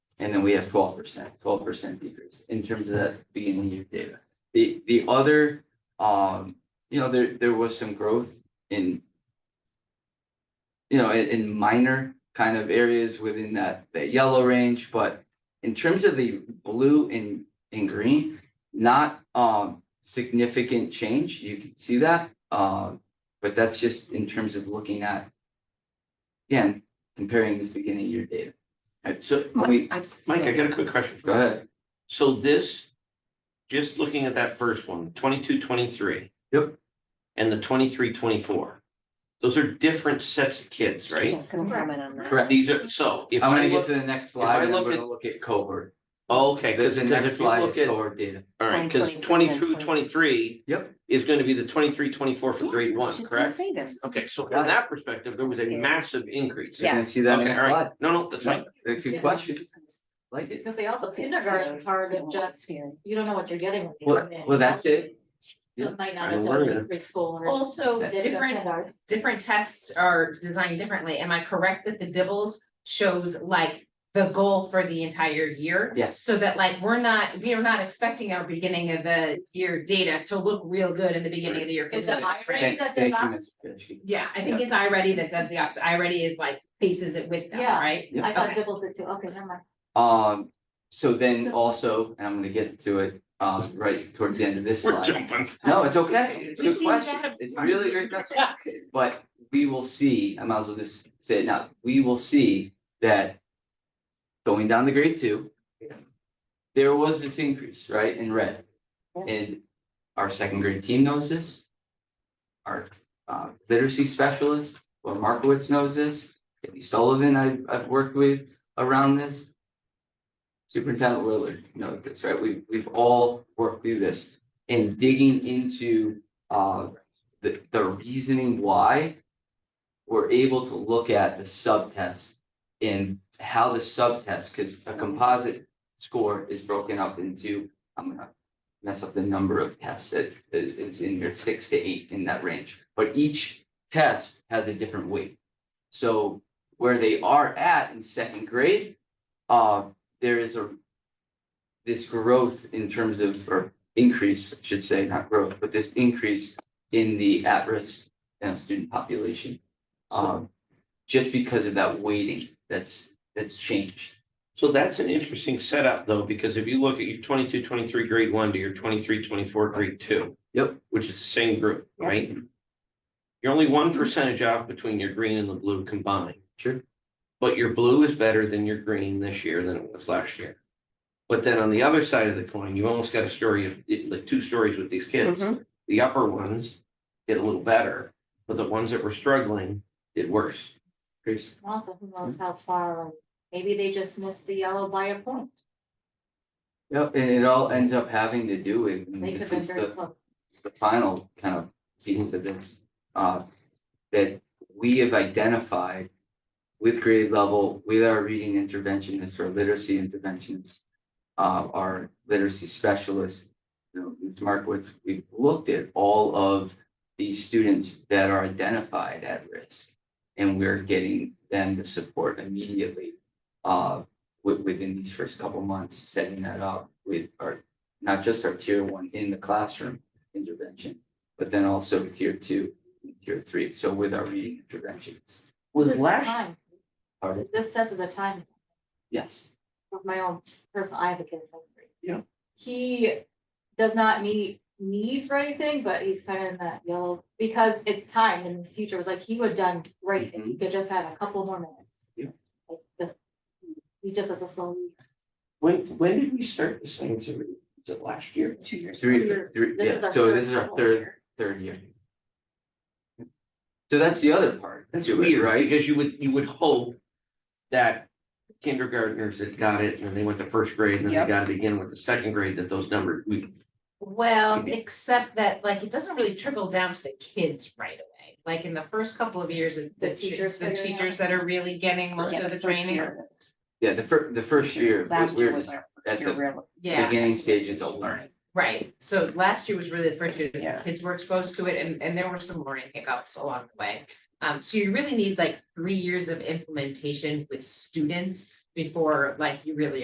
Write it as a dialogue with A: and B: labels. A: And then we have twelve percent, twelve percent decrease in terms of that beginning year data. The, the other, um, you know, there, there was some growth in. You know, in, in minor kind of areas within that, that yellow range, but in terms of the blue and, and green, not, um, significant change, you can see that, um, but that's just in terms of looking at. Again, comparing this beginning year data,
B: So,
A: we,
C: I just.
B: Mike, I got a quick question. for
A: go
B: you.
A: ahead,
B: So this, just looking at that first one, twenty-two, twenty-three.
A: Yep.
B: And the twenty-three, twenty-four. Those are different sets of kids,
C: I
B: right?
C: was gonna comment on that.
A: correct.
B: These are, so if
A: I'm
B: I
A: gonna get
B: look,
A: to the next
B: I
A: slide, and I'm
B: look
A: gonna
B: at-
A: look at cohort.
B: oh, okay,
A: The-
B: because
A: The next
B: if you
A: slide is
B: look at, all
A: cohort data.
B: right, because
C: 2023 and
B: twenty-two, twenty-three.
A: Yep.
B: Is gonna be the twenty-three, twenty-four for grade
C: I was
B: one,
C: just gonna
B: correct?
C: say this.
B: Okay, so from that perspective, there was a
C: Scary.
B: massive increase.
A: You're gonna
C: Yes.
A: see that
B: Okay,
A: next
B: all
A: slide.
B: right. No, no, that's fine.
A: That's a good question, like it.
D: Cause they also kindergarten's hard and just, you don't know what you're getting when you
A: Well-
D: come in.
A: well, that's it.
D: So it might not
B: Yeah.
D: have been preschool or.
E: Also,
A: That-
E: different, different tests are designed differently. Am I correct that the Dibbles shows like the goal for the entire year?
A: Yes,
E: So that like, we're not, we are not expecting our beginning of the year data to look real good in the beginning of the year. for
D: It's an
E: Dibbles, right?
D: IRA.
A: thank,
D: that
A: thank you,
D: design-
A: Ms. Pidgeotto.
E: Yeah, I think it's iReady that does the opposite. iReady is like faces it with them,
D: Yeah.
E: right?
A: Yeah.
D: I thought
E: Okay.
D: Dibbles did too, okay, never mind.
A: Um, so then also, and I'm gonna get to it, um, right towards the end of this
B: We're
A: slide.
B: jumping.
A: No, it's okay, it's a
E: We've
A: good
E: seen
A: question,
E: that.
A: it's a really a great question, but we will see, I might as well just say it now, we will see that. Going down the grade two. There was this increase, right, in red. And our second grade team knows this. Our uh literacy specialist, well, Markowitz knows this, Debbie Sullivan, I've I've worked with around this. Superintendent Willard knows this, right? We we've all worked through this and digging into uh the the reasoning why. We're able to look at the subtest and how the subtest, because a composite score is broken up into, I'm gonna mess up the number of tests that is it's in here, six to eight in that range, but each test has a different weight. So where they are at in second grade, uh, there is a this growth in terms of, or increase, I should say, not growth, but this increase in the at-risk you know, student population. Um, just because of that weighting that's, that's changed.
B: So that's an interesting setup though, because if you look at your 22, 23 grade one to your 23, 24 grade two.
A: Yep.
B: Which is the same group, right? You're only one percentage off between your green and the blue combined,
A: Sure.
B: but your blue is better than your green this year than it was last year. But then on the other side of the coin, you almost got a story of, it- like two stories with these kids.
C: Mhm.
B: The upper ones did a little better, but the ones that were struggling did worse.
A: Chris,
D: Also, who
A: Mm.
D: knows how far, like, maybe they just missed the yellow by a point,
A: Yep, and it all ends up having to do with, and
D: they could have
A: Mm, this
D: been
A: is
D: very
A: the,
D: close.
A: the final kind of piece of this, uh, that we have identified with grade level, with our reading interventionists or literacy interventionists, uh, our literacy specialists, you know, Ms. Markowitz, we've looked at all of these students that are identified at risk. And we're getting them the support immediately, uh, wi- within these first couple months, setting that up with our, not just our tier one in the classroom intervention, but then also tier two, tier three, so with our reading interventions.
B: Was
D: This is
B: last,
D: time. This says of the time
A: Yes,
D: of my own personal, I have a kid. in second grade.
B: Yeah.
D: He does not meet need for anything, but he's kind of in that yellow, because it's time, and his teacher was like, he would have done great if he could just have a couple more minutes.
A: Yeah.
D: Like, the, he just has a slow.
B: when, when did we start the science of reading? Was it last year?
C: Two years.
A: three,
D: Third.
A: three,
D: This is
A: yeah,
D: our
A: so
D: third
A: this is our
D: couple
A: third,
D: here.
A: third year. So that's the other part
B: That's
A: to it,
B: weird, right?
A: right?
B: Because you would, you would hope that kindergartners that got it and then they went to first grade and then they
C: Yep.
B: got it again with the second grade, that those numbers, we.
E: Well, except that like, it doesn't really trickle down to the kids right away. Like in the first couple of years, it-
D: The
E: the
D: teachers
E: teachers, the
D: figuring out.
E: teachers that are really getting most
C: Yeah,
E: of the
C: first
E: training.
C: year of this.
A: Yeah, the fir- the first year, was
C: Last
A: we
C: year
A: were
C: was
A: just
C: our
A: at
C: year
A: the
C: real.
E: Yeah,
A: beginning stages of learning.
E: right. So last year was really the first year that
C: Yeah.
E: the kids were exposed to it and, and there were some learning hiccups along the way. Um, so you really need like three years of implementation with students before like you really